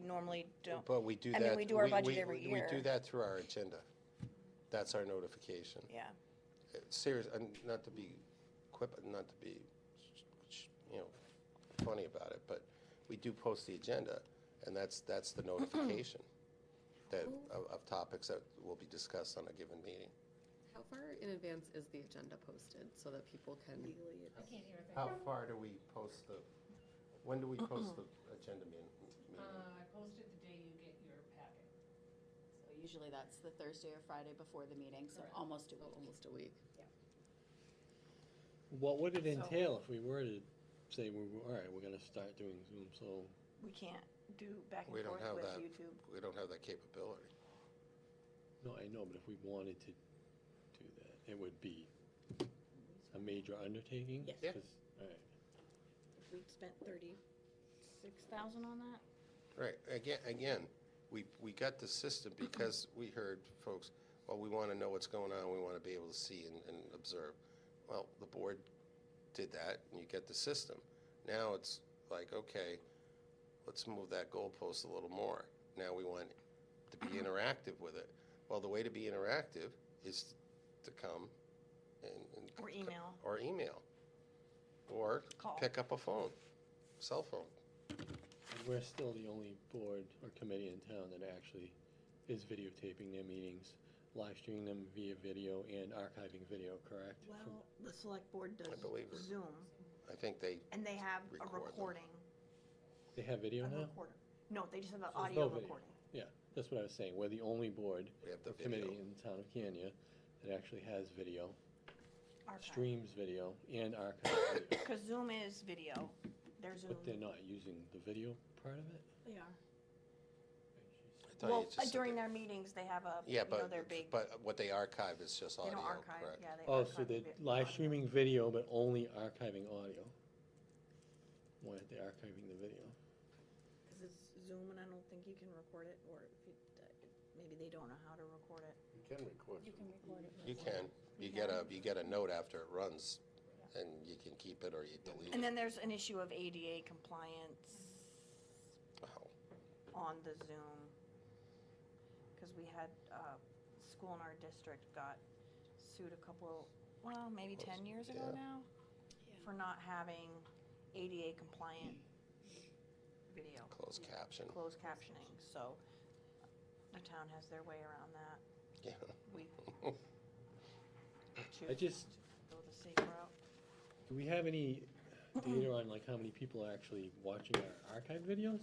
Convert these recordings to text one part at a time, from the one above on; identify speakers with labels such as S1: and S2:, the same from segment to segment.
S1: normally don't.
S2: But we do
S1: I
S2: that.
S1: mean, we do our budget
S2: we-
S1: every year.
S2: We do that through our agenda. That's our notification. Uh,
S1: Yeah,
S2: Serious, and not to be quip, not to be, you know, funny about it, but we do post the agenda, and that's, that's the notification that, of, of topics that will be discussed on a given meeting.
S3: How far in advance is the agenda posted so that people can?
S2: How far do we post the, when do we post the agenda meeting?
S4: Uh, I posted the day you get your packet.
S5: So Usually that's the Thursday or Friday before the meeting, so
S4: Correct.
S5: almost a week.
S3: Almost a week.
S6: What would it entail if we were to say, we're, all right, we're gonna start doing Zoom, so
S1: we can't do back
S2: We
S1: and
S2: don't
S1: forth
S2: have
S1: with
S2: that.
S1: YouTube.
S2: We don't have that capability.
S6: No, I know, but if we wanted to do that, it would be a major undertaking?
S1: Yes.
S2: Yeah.
S6: 'Cause- all right.
S1: We spent thirty-six thousand on that?
S2: Right, again, again, we, we got the system because we heard folks, well, we want to know what's going on, we want to be able to see and, and observe. Well, the board did that, and you get the system. Now it's like, okay, let's move that goalpost a little more. Now we want to be interactive with it. Well, the way to be interactive is to come and. and-
S1: Or email.
S2: Or email. Or
S1: Call.
S2: pick up a phone, cell phone.
S6: And we're still the only board or committee in town that actually is videotaping their meetings, live streaming them via video and archiving video, correct? From-
S1: Well, the select board
S2: I
S1: does
S2: believe it.
S1: Zoom,
S2: I think they
S1: and they have a
S2: Record them.
S1: recording,
S6: They have
S1: a
S6: video now?
S1: recorder. No, they just have an
S6: There's
S1: audio
S6: no video.
S1: recording.
S6: Yeah, that's what I was saying, we're the only board
S2: We have the
S6: or committee
S2: video.
S6: in the town of Kenya that actually has video,
S1: archive.
S6: streams video and archives video.
S1: Because Zoom is video, they're Zoom.
S6: But they're not using the video part of it?
S1: They are.
S2: I thought you
S1: Well, uh,
S2: just said
S1: during
S2: they-
S1: their meetings, they have a, you
S2: Yeah,
S1: know, their
S2: but,
S1: big,
S2: but what they archive is just
S1: they
S2: audio,
S1: don't archive,
S2: correct?
S1: yeah, they
S6: Oh,
S1: archive
S6: so they're
S1: the vi-
S6: live
S1: audio.
S6: streaming video, but only archiving audio? Why aren't they archiving the video?
S1: Because it's Zoom and I don't think you can record it, or if you, maybe they don't know how to record it.
S2: You can record.
S5: can record it.
S2: You can, you get a, you get a note after it runs, and you can keep it or you delete
S1: And
S2: it.
S1: then there's an issue of ADA compliance
S6: Oh.
S2: Wow.
S1: on the Zoom. Because we had, uh, school in our district got sued a couple, well, maybe ten years ago
S2: Yeah.
S1: now, for not having ADA compliant video.
S2: Closed caption,
S1: closed captioning, so uh, the town has their way around that.
S2: yeah.
S1: We
S6: I
S1: choose to
S6: just,
S1: go the safe route.
S6: do we have any data on like how many people are actually watching our archive videos?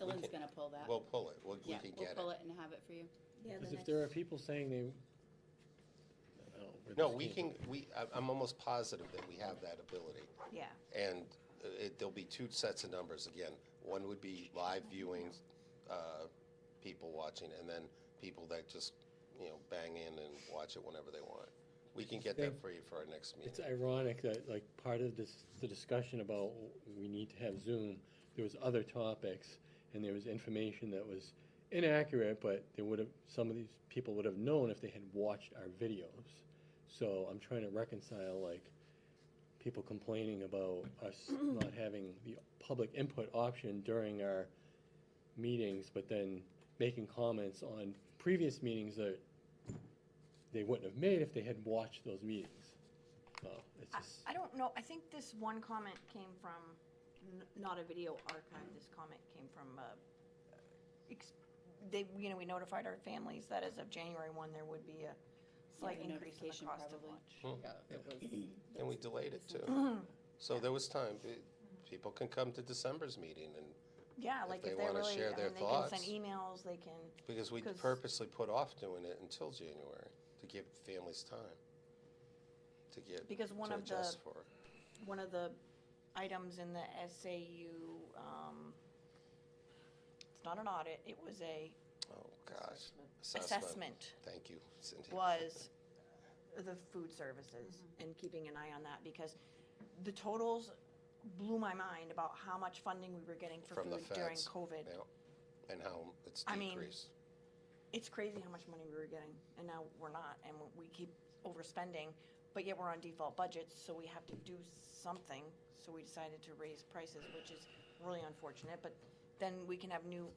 S5: Tillin's gonna pull that.
S2: We'll pull it, we, we
S5: Yeah,
S2: can
S5: we'll
S2: get
S5: pull
S2: it.
S5: it and have it for you.
S6: Because if there are people saying they, I don't know, we're
S2: No,
S6: just
S2: we
S6: can't-
S2: can, we, I- I'm almost positive that we have that ability.
S1: Yeah,
S2: And uh, it, there'll be two sets of numbers again. One would be live viewings, uh, people watching, and then people that just, you know, bang in and watch it whenever they want. We can get that
S6: They-
S2: for you for our next meeting.
S6: It's ironic that, like, part of this, the discussion about we need to have Zoom, there was other topics, and there was information that was inaccurate, but they would have, some of these people would have known if they had watched our videos. So I'm trying to reconcile, like, people complaining about us not having the public input option during our meetings, but then making comments on previous meetings that they wouldn't have made if they had watched those meetings. So it's
S1: I,
S6: just,
S1: I don't know, I think this one comment came from, n- not a video archive, this comment came from, uh, ex- they, you know, we notified our families that as of January one, there would be a slight increase
S5: the
S1: in the
S5: notification
S1: cost of
S5: probably.
S1: lunch.
S3: Yeah, it was.
S2: And Hmm. we delayed it too. So there was time, Pe- people can come to December's meeting and,
S1: Yeah,
S2: If
S1: like
S2: they
S1: if they're
S2: wanna
S1: really,
S2: share
S1: I
S2: their
S1: mean, they can send
S2: thoughts.
S1: emails, they can,
S2: because we
S1: 'Cause-
S2: purposely put off doing it until January to give families time to get,
S1: Because one
S2: to
S1: of the-
S2: adjust for.
S1: one of the items in the SAU, um, it's not an audit, it was a
S2: Oh, gosh.
S1: assessment
S2: Thank you, Cindy.
S1: was the food services and keeping an eye on that because the totals blew my mind about how much funding we were getting for
S2: From the
S1: food during
S2: feds,
S1: COVID.
S2: yeah. And how it's
S1: I mean-
S2: decreased.
S1: It's crazy how much money we were getting and now we're not and we keep overspending, but yet we're on default budgets, so we have to do something. So we decided to raise prices, which is really unfortunate, but then we can have new